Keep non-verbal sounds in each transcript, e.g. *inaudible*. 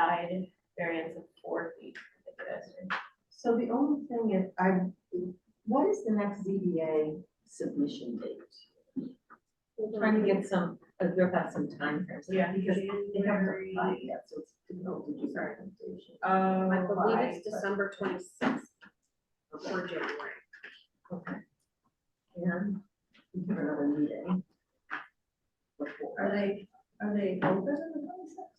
side variance of four feet. for the pedestrian. So the only thing is, I, what is the next ZBA submission date? Trying to get some, uh, they've got some time frames. Yeah, Because they haven't January. applied yet, so it's difficult to do our presentation. Um, I believe Why? it's December twenty-sixth Okay, or January. okay. And we have another meeting. before. Are they, are they open on the twenty-sixth?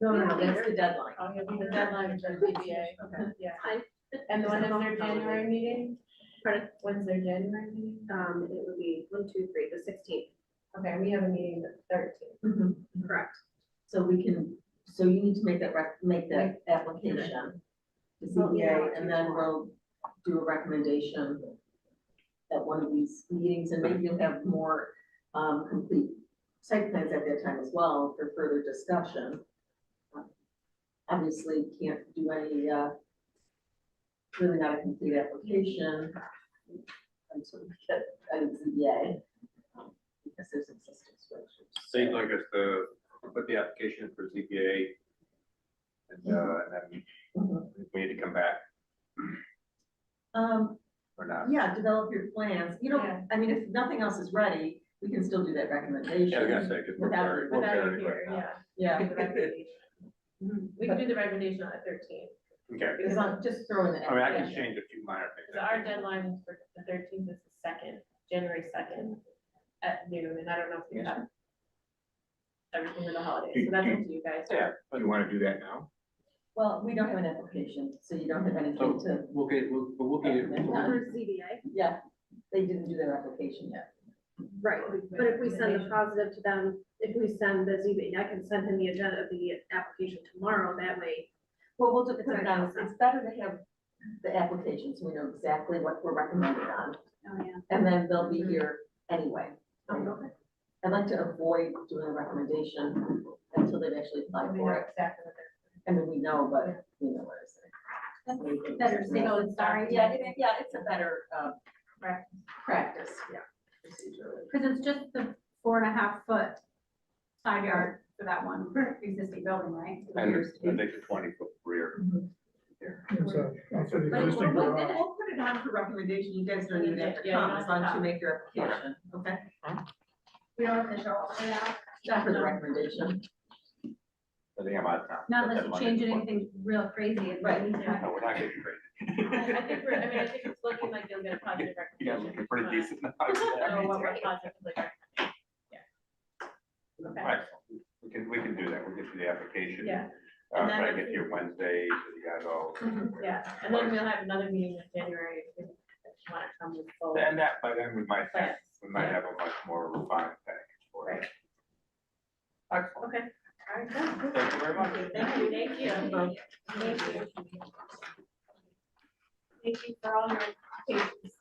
No, no, no, that's the deadline. I'll give you Oh, the deadline for the ZBA, Okay. yeah. Fine. And the one is their January meeting? Pardon? When's their January meeting? Um, it would be one, two, three, the sixteenth, Okay, we have a meeting the thirteenth. Mhm. correct? So we can, so you need to make that rec, make that application. to Well, you know, ZBA, and then we'll do a recommendation at one of these meetings, and maybe you'll have more, um, complete site plans at that time as well for further discussion. Obviously, can't do any, uh, really not a complete application until we get a ZBA. um, Because there's existing structures. Seems like it's the, put the application for CPA. And, uh, and Mhm. then we need to come back Um, or not. Yeah, develop your plans, you Yeah. know, I mean, if nothing else is ready, we can still do that Yeah, I was gonna recommendation. say, because we're Without- very, we're Without very it right here, now. yeah. Yeah, Do the *laughs* recommendation. We can do the recommendation on the thirteenth, Okay, because on, just throw in the. I mean, I can application. change a few minor things. So our deadline is for the thirteenth is the second, January second at noon, and I don't know if we have everything for the holidays, so that's up to you guys. Yeah, but you wanna do that now? Well, we don't have an application, so you don't have Oh, anything to, We'll get, we'll, but we'll get it- For ZBA, yeah, they didn't do their application yet. right, but if we send the positive to them, if we send the ZBA, I can send him the agenda of the application tomorrow, that way. Well, we'll just It's put it not- down, it's better to have the application, so we know exactly what we're recommending on, Oh, yeah. and then they'll be here anyway. Okay. I'd like to avoid doing a recommendation until they've actually applied We know for it, exactly what they're- and then we know, but we know what it's. better safe Yeah. than sorry. Yeah, it- yeah, it's a better, uh, Correct. practice. Yeah. Procedure. Because it's just the four and a half foot side yard for that one existing building, right? And there's- I think the twenty foot rear. Mm-hmm. here. for the But we'll, existing we'll, garage. we'll put it on for recommendation, you guys don't even have to Yeah, you don't come, as long as you have make your application, okay? We don't have to show all the way out, Not for the recommendation, I think I'm out of time. not That unless you Monday change before. anything real crazy. and Right. we need to- No, we're not getting crazy. I think we're, I mean, I think it's looking like you'll get a positive *laughs* You guys recommendation. looking pretty Uh, *laughs* decent. now. Excellent. So what *laughs* we're positively recommending, yeah. Okay, We can, we can do that. We'll get you the application. Yeah. Uh, And try then to if get you Wednesday, so you guys all. *laughs* yeah, and then we'll have another meeting in January if you want to come with full. And that, by then, we might have, Plans. we might have a much more refined package for it. Excellent. Okay, all right, good. Thank you very much. Thank you, thank you. Thank you. Thank you for all your patience.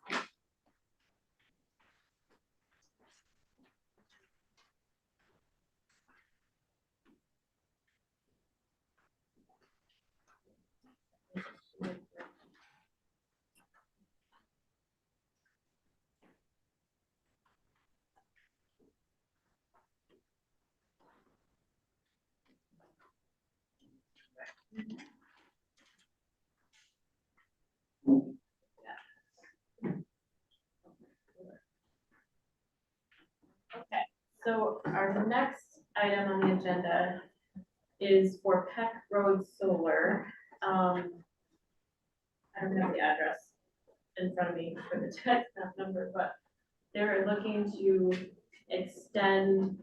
Okay, so our next item on the agenda is for Peck Road Solar. Um, I don't have the address in front of me for the tax map number, but they're looking to extend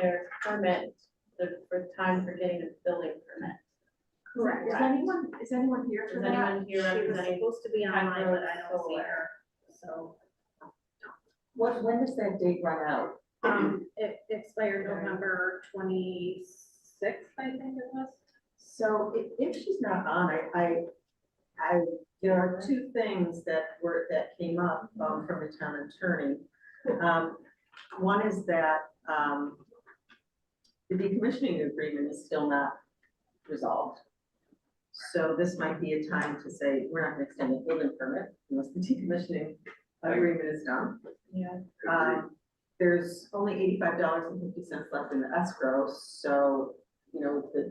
their permit, the, for time for getting a building permit. Correct. Is anyone, is anyone here Is anyone She here was representing? supposed to be online, Hydro but I don't see Solar? her, so. what, when does that date run out? Um, it expired Right. November twenty-sixth, I think it was. So if, if she's not on, I, I, I, there are two things that were, that came up, um, from the town attorney. Um, one is that, um, the decommissioning agreement is still not resolved. So this might be a time to say, we're not gonna extend the building permit unless the decommissioning agreement is done. Yeah, Um, there's only eighty-five dollars and fifty cents left in the escrow, so, you know, the